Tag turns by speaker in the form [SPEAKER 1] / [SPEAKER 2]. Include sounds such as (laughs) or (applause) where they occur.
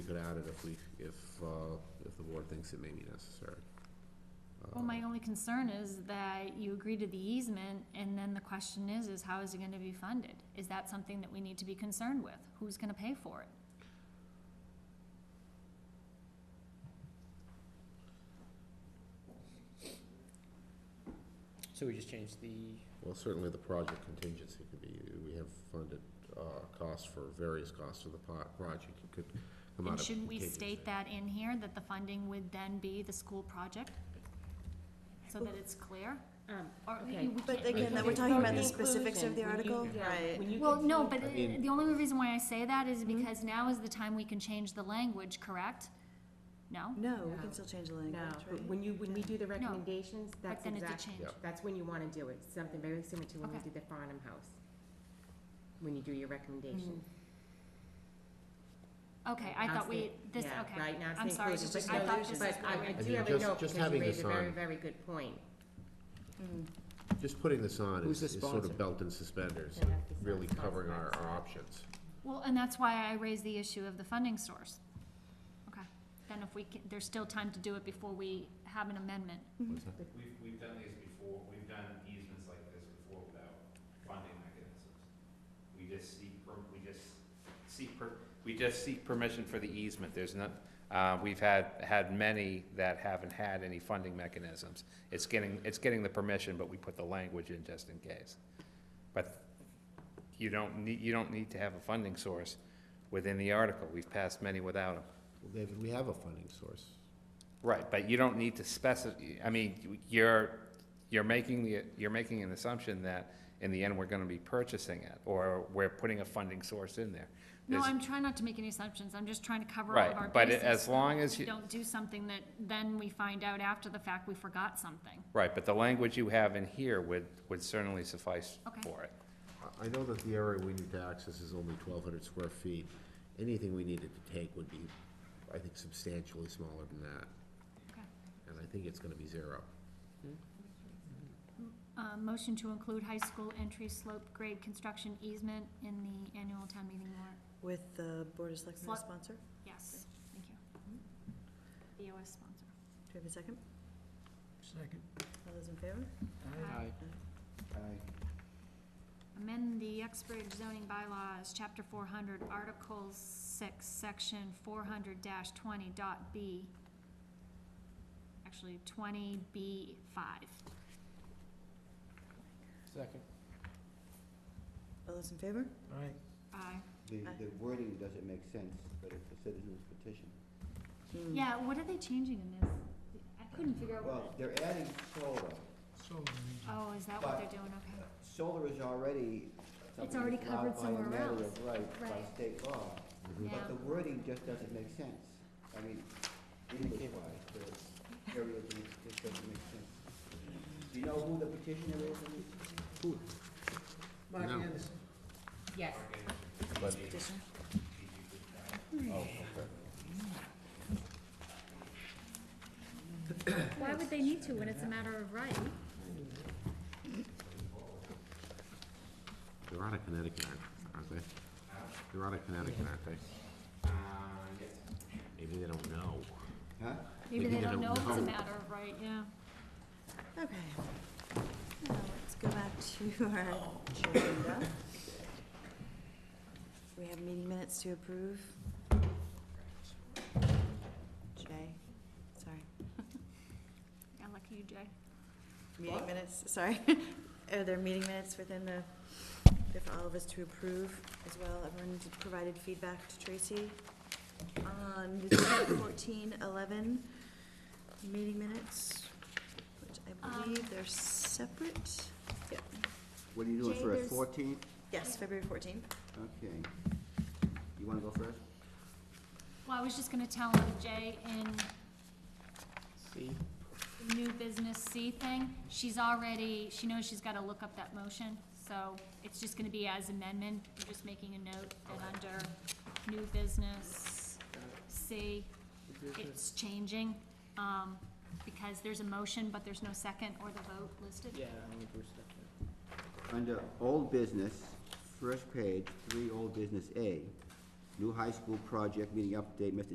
[SPEAKER 1] could add it if we, if, uh, if the board thinks it may be necessary. Uh,
[SPEAKER 2] Well, my only concern is that you agree to the easement, and then the question is, is how is it gonna be funded? Is that something that we need to be concerned with? Who's gonna pay for it?
[SPEAKER 3] So we just changed the,
[SPEAKER 1] Well, certainly the project contingency could be, we have funded, uh, costs for various costs of the po- project, it could come out
[SPEAKER 2] And
[SPEAKER 1] of
[SPEAKER 2] shouldn't we
[SPEAKER 1] contingency.
[SPEAKER 2] state that in here, that the funding would then be the school project? So that it's clear? Or we-
[SPEAKER 4] okay.
[SPEAKER 2] we
[SPEAKER 5] But
[SPEAKER 2] can't-
[SPEAKER 5] again, that we're talking about the specifics of the article,
[SPEAKER 4] Yeah.
[SPEAKER 5] right?
[SPEAKER 4] When you
[SPEAKER 2] Well, no,
[SPEAKER 4] conclude-
[SPEAKER 2] but
[SPEAKER 1] I mean-
[SPEAKER 2] the only reason why I say that is
[SPEAKER 4] Mm-hmm.
[SPEAKER 2] because now is the time we can change the language, correct? No?
[SPEAKER 5] No, we
[SPEAKER 4] No.
[SPEAKER 5] can still change the
[SPEAKER 4] No,
[SPEAKER 5] language,
[SPEAKER 4] but
[SPEAKER 5] right?
[SPEAKER 4] when you, when we do the recommendations,
[SPEAKER 2] But
[SPEAKER 4] that's
[SPEAKER 2] then it's a
[SPEAKER 4] exactly,
[SPEAKER 2] change.
[SPEAKER 1] Yeah.
[SPEAKER 4] that's when you wanna do it, something very similar to when we
[SPEAKER 2] Okay.
[SPEAKER 4] did the Farnham House. When you do your recommendation.
[SPEAKER 2] Mm-hmm. Okay, I
[SPEAKER 4] Now
[SPEAKER 2] thought
[SPEAKER 4] it's
[SPEAKER 2] we,
[SPEAKER 4] the-
[SPEAKER 2] this,
[SPEAKER 4] yeah,
[SPEAKER 2] okay.
[SPEAKER 4] Right, now it's
[SPEAKER 2] I'm
[SPEAKER 4] the
[SPEAKER 2] sorry,
[SPEAKER 4] inclusion,
[SPEAKER 2] just-
[SPEAKER 4] but
[SPEAKER 2] I
[SPEAKER 4] no,
[SPEAKER 2] thought
[SPEAKER 4] there's-
[SPEAKER 2] this
[SPEAKER 4] but
[SPEAKER 2] is
[SPEAKER 4] I-
[SPEAKER 2] where
[SPEAKER 4] I
[SPEAKER 2] we-
[SPEAKER 4] do
[SPEAKER 1] mean,
[SPEAKER 4] have a
[SPEAKER 1] just-
[SPEAKER 4] note,
[SPEAKER 1] just
[SPEAKER 4] because you
[SPEAKER 1] having
[SPEAKER 4] raised
[SPEAKER 1] this
[SPEAKER 4] a very,
[SPEAKER 1] on.
[SPEAKER 4] very good point.
[SPEAKER 5] Mm.
[SPEAKER 1] Just putting this on
[SPEAKER 3] Who's
[SPEAKER 1] is
[SPEAKER 3] the
[SPEAKER 1] is sort
[SPEAKER 3] sponsor?
[SPEAKER 1] of belt and suspenders,
[SPEAKER 4] Yeah, that's the
[SPEAKER 1] really
[SPEAKER 4] sponsor.
[SPEAKER 1] covering our, our options.
[SPEAKER 2] Well, and that's why I raised the issue of the funding source. Okay, then if we can, there's still time to do it before we have an amendment.
[SPEAKER 1] What's that?
[SPEAKER 6] We've, we've done these before, we've done easements like this before without funding mechanisms. We just seek, per- we just seek, per- we just seek permission for the easement, there's not, uh, we've had, had many that haven't had any funding mechanisms. It's getting, it's getting the permission, but we put the language in just in case. But you don't need, you don't need to have a funding source within the article, we've passed many without them.
[SPEAKER 1] Well, David, we have a funding source.
[SPEAKER 6] Right, but you don't need to specify, I mean, you're, you're making the, you're making an assumption that in the end, we're gonna be purchasing it, or we're putting a funding source in there.
[SPEAKER 2] No,
[SPEAKER 6] There's-
[SPEAKER 2] I'm trying not to make any assumptions, I'm just trying to cover all of our
[SPEAKER 6] Right, but
[SPEAKER 2] bases.
[SPEAKER 6] as long as
[SPEAKER 2] We
[SPEAKER 6] you,
[SPEAKER 2] don't do something that then we find out after the fact we forgot something.
[SPEAKER 6] right, but the language you have in here would, would certainly suffice
[SPEAKER 2] Okay.
[SPEAKER 6] for it.
[SPEAKER 1] I, I know that the area we need to access is only twelve hundred square feet. Anything we needed to take would be, I think, substantially smaller than that,
[SPEAKER 2] Okay.
[SPEAKER 1] and I think it's gonna be zero.
[SPEAKER 2] Uh, motion to include high school entry slope grade construction easement in the annual town meeting warrant.
[SPEAKER 5] With the Board of Selectmen as
[SPEAKER 2] Slut.
[SPEAKER 5] sponsor.
[SPEAKER 2] Yes, thank you. BOS sponsor.
[SPEAKER 5] Do we have a second?
[SPEAKER 3] Second.
[SPEAKER 5] All those in favor?
[SPEAKER 2] Aye. Amend the Uxbridge zoning bylaws, chapter four hundred, article six, section four hundred twenty dot B. Actually, twenty B five.
[SPEAKER 3] Second.
[SPEAKER 5] All those in favor?
[SPEAKER 3] All right.
[SPEAKER 2] Aye.
[SPEAKER 7] The,
[SPEAKER 5] Aye.
[SPEAKER 7] the wording doesn't make sense, but it's a citizen's petition.
[SPEAKER 5] Hmm.
[SPEAKER 2] Yeah, what are they changing in this? I couldn't figure out
[SPEAKER 7] Well,
[SPEAKER 2] what,
[SPEAKER 7] they're adding solar.
[SPEAKER 2] oh, is that what they're doing, okay.
[SPEAKER 7] Solar is already
[SPEAKER 2] It's
[SPEAKER 7] something
[SPEAKER 2] already
[SPEAKER 7] that's allowed
[SPEAKER 2] covered
[SPEAKER 7] by a
[SPEAKER 2] somewhere
[SPEAKER 7] matter
[SPEAKER 2] else.
[SPEAKER 7] of right, by
[SPEAKER 2] Right.
[SPEAKER 7] state law.
[SPEAKER 2] Yeah.
[SPEAKER 7] But the wording just doesn't make sense. I mean, English-wise, the area just- just doesn't make sense. Do you know who the petitioner is? in this?
[SPEAKER 1] Mark
[SPEAKER 4] Yes.
[SPEAKER 5] This Mm. petition.
[SPEAKER 2] Why would they need to when it's a matter of right?
[SPEAKER 1] They're out of Connecticut, aren't- aren't they? They're out of Connecticut, aren't they? Maybe they don't know.
[SPEAKER 7] Huh?
[SPEAKER 2] Maybe they don't know if it's a matter of right, yeah.
[SPEAKER 5] Okay. Now, let's go back (laughs) to our
[SPEAKER 4] Oh,
[SPEAKER 5] agenda. We have meeting minutes to approve. Jay, sorry.
[SPEAKER 2] Yeah, lucky you, Jay.
[SPEAKER 5] Meeting minutes, sorry. (laughs) Are there meeting minutes within the, there for all of us to approve as well? Everyone provided feedback to Tracy Um, on December fourteen eleven meeting minutes, which I believe they're separate. Yep.
[SPEAKER 7] What are you
[SPEAKER 2] Jay,
[SPEAKER 7] doing for a
[SPEAKER 2] there's-
[SPEAKER 7] fourteenth?
[SPEAKER 5] Yes, February fourteenth.
[SPEAKER 7] Okay. You wanna go first?
[SPEAKER 2] Well, I was just gonna tell him, Jay, in
[SPEAKER 3] C.
[SPEAKER 2] the new business C thing, she's already, she knows she's gotta look up that motion, so it's just gonna be as amendment, I'm just making a note that under new business C, it's changing, um, because there's a motion, but there's no second or the vote listed.
[SPEAKER 3] Yeah, I only Bruce second.
[SPEAKER 7] Under old business, first page, three old business A, new high school project meeting update, Mr.